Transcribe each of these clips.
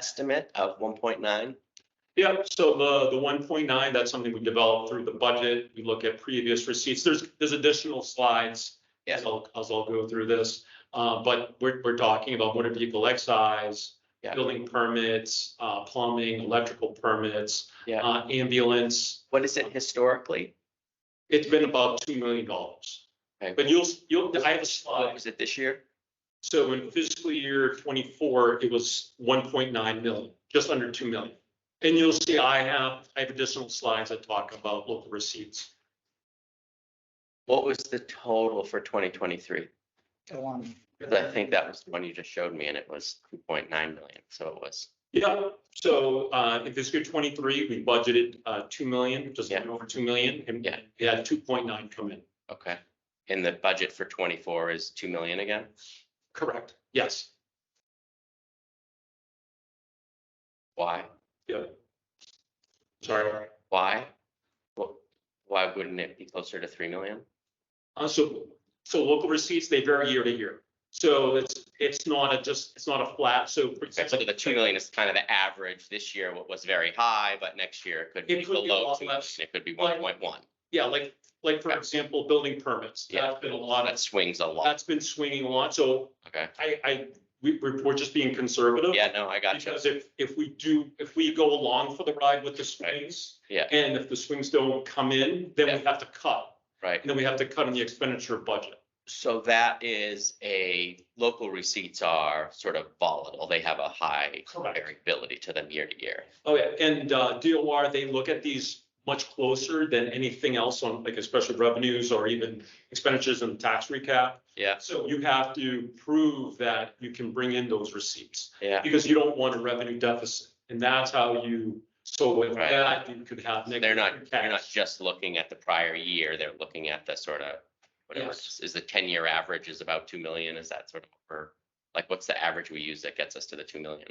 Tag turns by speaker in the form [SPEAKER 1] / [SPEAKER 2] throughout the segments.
[SPEAKER 1] estimate of one point nine?
[SPEAKER 2] Yeah, so the, the one point nine, that's something we developed through the budget. We look at previous receipts. There's, there's additional slides.
[SPEAKER 1] Yeah.
[SPEAKER 2] As I'll, as I'll go through this, uh, but we're, we're talking about motor vehicle excise,
[SPEAKER 1] Yeah.
[SPEAKER 2] building permits, uh, plumbing, electrical permits.
[SPEAKER 1] Yeah.
[SPEAKER 2] Uh, ambulance.
[SPEAKER 1] What is it historically?
[SPEAKER 2] It's been about two million dollars.
[SPEAKER 1] Okay.
[SPEAKER 2] But you'll, you'll, I have a
[SPEAKER 1] What
[SPEAKER 2] slide.
[SPEAKER 1] was it this year?
[SPEAKER 2] So in fiscal year twenty-four, it was one point nine million, just under two million. And you'll see I have, I have additional slides that talk about local receipts.
[SPEAKER 1] What was the total for twenty twenty-three?
[SPEAKER 3] Go on.
[SPEAKER 1] Cause I think that was the one you just showed me and it was two point nine million, so it was,
[SPEAKER 2] Yeah, so uh, in fiscal year twenty-three, we budgeted uh, two million, just a little over two million, and
[SPEAKER 1] Yeah.
[SPEAKER 2] we had two point nine come in.
[SPEAKER 1] okay. And the budget for twenty-four is two million again?
[SPEAKER 2] Correct. Yes.
[SPEAKER 1] Why?
[SPEAKER 2] Yeah. Sorry.
[SPEAKER 1] Why? Wh- Why wouldn't it be closer to three million?
[SPEAKER 2] Uh, so, so local receipts, they vary year to year. So it's, it's not a just, it's not a flat, so. for
[SPEAKER 1] Okay, so
[SPEAKER 2] example-
[SPEAKER 1] the two million is kind of the average. This year, what was very high, but next year it could be
[SPEAKER 2] It could be a
[SPEAKER 1] below
[SPEAKER 2] lot
[SPEAKER 1] two million.
[SPEAKER 2] less.
[SPEAKER 1] It could be
[SPEAKER 2] Like-
[SPEAKER 1] one point one.
[SPEAKER 2] Yeah, like, like for example, building permits,
[SPEAKER 1] Yeah.
[SPEAKER 2] that's been a lot
[SPEAKER 1] That
[SPEAKER 2] of,
[SPEAKER 1] swings a lot.
[SPEAKER 2] that's been swinging a lot, so
[SPEAKER 1] Okay.
[SPEAKER 2] I, I, we, we're we're just being conservative.
[SPEAKER 1] Yeah, no, I got you.
[SPEAKER 2] Because if, if we do, if we go along for the ride with the swings.
[SPEAKER 1] Yeah.
[SPEAKER 2] And if the swings don't come in, then we
[SPEAKER 1] Yeah.
[SPEAKER 2] have to cut,
[SPEAKER 1] Right.
[SPEAKER 2] and then we have to cut in the expenditure budget.
[SPEAKER 1] So that is a, local receipts are sort of volatile. They have a high
[SPEAKER 2] Correct.
[SPEAKER 1] variability to them year to year.
[SPEAKER 2] Oh, yeah, and uh, DOR, they look at these much closer than anything else on, like especially revenues or even expenditures and tax recap.
[SPEAKER 1] Yeah.
[SPEAKER 2] So you have to prove that you can bring in those receipts.
[SPEAKER 1] Yeah.
[SPEAKER 2] because you don't want a revenue deficit. And that's how you, so with
[SPEAKER 1] Right.
[SPEAKER 2] that, you could have.
[SPEAKER 1] They're not,
[SPEAKER 2] negative
[SPEAKER 1] they're not
[SPEAKER 2] cash.
[SPEAKER 1] just looking at the prior year. They're looking at the sort of, whatever, it is
[SPEAKER 2] Yes.
[SPEAKER 1] Is the ten-year average is about two million? Is that sort of, or like, what's the average we use that gets us to the two million?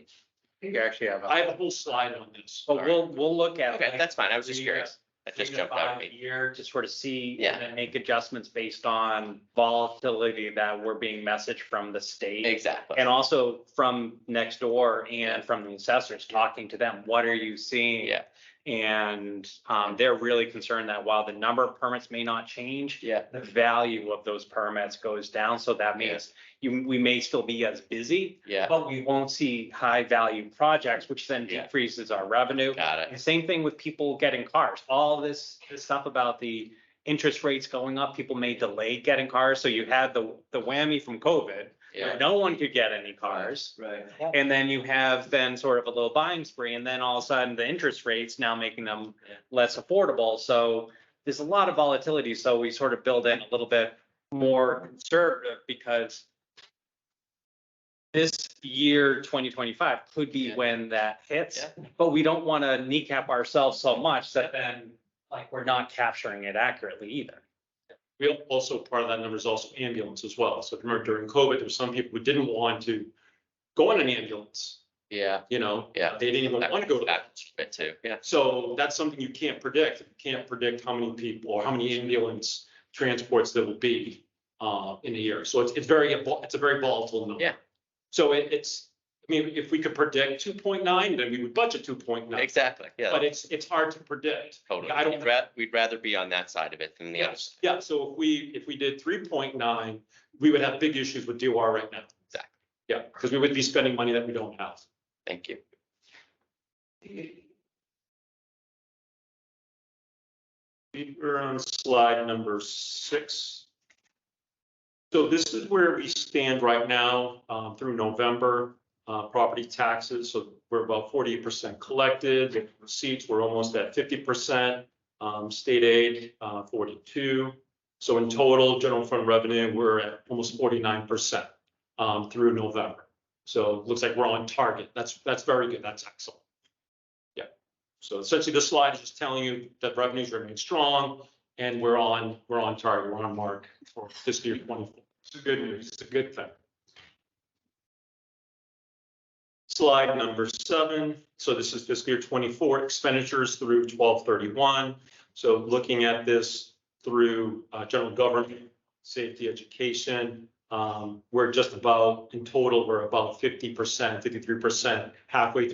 [SPEAKER 4] You actually have,
[SPEAKER 2] I
[SPEAKER 4] a-
[SPEAKER 2] have a whole slide on this.
[SPEAKER 4] but we'll, we'll look at.
[SPEAKER 1] Okay,
[SPEAKER 4] like,
[SPEAKER 1] that's fine. I was just
[SPEAKER 4] three to-
[SPEAKER 1] curious. That
[SPEAKER 4] three
[SPEAKER 1] just
[SPEAKER 4] to
[SPEAKER 1] jumped out at
[SPEAKER 4] five
[SPEAKER 1] me.
[SPEAKER 4] Year to sort of see.
[SPEAKER 1] Yeah.
[SPEAKER 4] And then make adjustments based on volatility that we're being messaged from the state.
[SPEAKER 1] Exactly.
[SPEAKER 4] And also from next door and from the assessors, talking to them, what are you seeing?
[SPEAKER 1] Yeah,
[SPEAKER 4] And, um, they're really concerned that while the number of permits may not change,
[SPEAKER 1] yeah,
[SPEAKER 4] the value of those permits goes down. So that
[SPEAKER 1] Yeah.
[SPEAKER 4] means you, we may still be as busy,
[SPEAKER 1] yeah.
[SPEAKER 4] but we won't see high value projects, which then
[SPEAKER 1] Yeah.
[SPEAKER 4] decreases our revenue.
[SPEAKER 1] Got it.
[SPEAKER 4] And Same thing with people getting cars, all this, this stuff about the interest rates going up, people may delay getting cars, so you had the, the whammy from COVID.
[SPEAKER 1] Yeah,
[SPEAKER 4] where No one could get any cars,
[SPEAKER 5] Right.
[SPEAKER 4] and then you have then sort of a little buying spree, and then all of a sudden, the interest rates now making them
[SPEAKER 5] Yeah.
[SPEAKER 4] less affordable, so there's a lot of volatility, so we sort of build in a little bit more conservative, because this year, twenty twenty-five, could be
[SPEAKER 1] Yeah.
[SPEAKER 4] when that hits, but we don't want to kneecap ourselves so much that then, like, we're not capturing it accurately either.
[SPEAKER 2] We al- also, part of that number is also ambulance as well. So if you remember during COVID, there were some people who didn't want to go on an ambulance,
[SPEAKER 1] yeah,
[SPEAKER 2] you know?
[SPEAKER 1] Yeah.
[SPEAKER 2] They didn't even
[SPEAKER 1] That-
[SPEAKER 2] want to go to that.
[SPEAKER 1] that's a bit too, yeah.
[SPEAKER 2] So that's something you can't predict. You can't predict how many people or how many ambulance transports there will be uh, in a year. So it's, it's very, vol- it's a very volatile number.
[SPEAKER 1] Yeah.
[SPEAKER 2] So it, it's, I mean, if we could predict two point nine, then we would budget two point nine,
[SPEAKER 1] Exactly, yeah,
[SPEAKER 2] but it's, it's hard to predict.
[SPEAKER 1] totally.
[SPEAKER 2] I don't.
[SPEAKER 1] We'd ra- We'd rather be on that side of it than the other.
[SPEAKER 2] Yes, yeah, so if we, if we did three point nine, we would have big issues with DOR right now.
[SPEAKER 1] Exactly.
[SPEAKER 2] Yeah, because we would be spending money that we don't have.
[SPEAKER 1] Thank you.
[SPEAKER 2] We We're on slide number six. So this is where we stand right now um, through November, uh, property taxes. So we're about 48% collected. Receipts, we're almost at 50%. um, State aid, uh, 42. So in total, general fund revenue, we're at almost 49% um, through November. So it looks like we're on target. That's, that's very good. That's excellent. So essentially, this slide is just telling you that revenues remain strong and we're on, we're on target, we're on mark for fiscal year twenty-four. It's good news, it's a good thing. Slide number seven, so this is fiscal year twenty-four expenditures through twelve thirty-one. So looking at this through uh, general government, safety, education, um, we're just about, in total, we're about fifty percent, fifty-three percent halfway through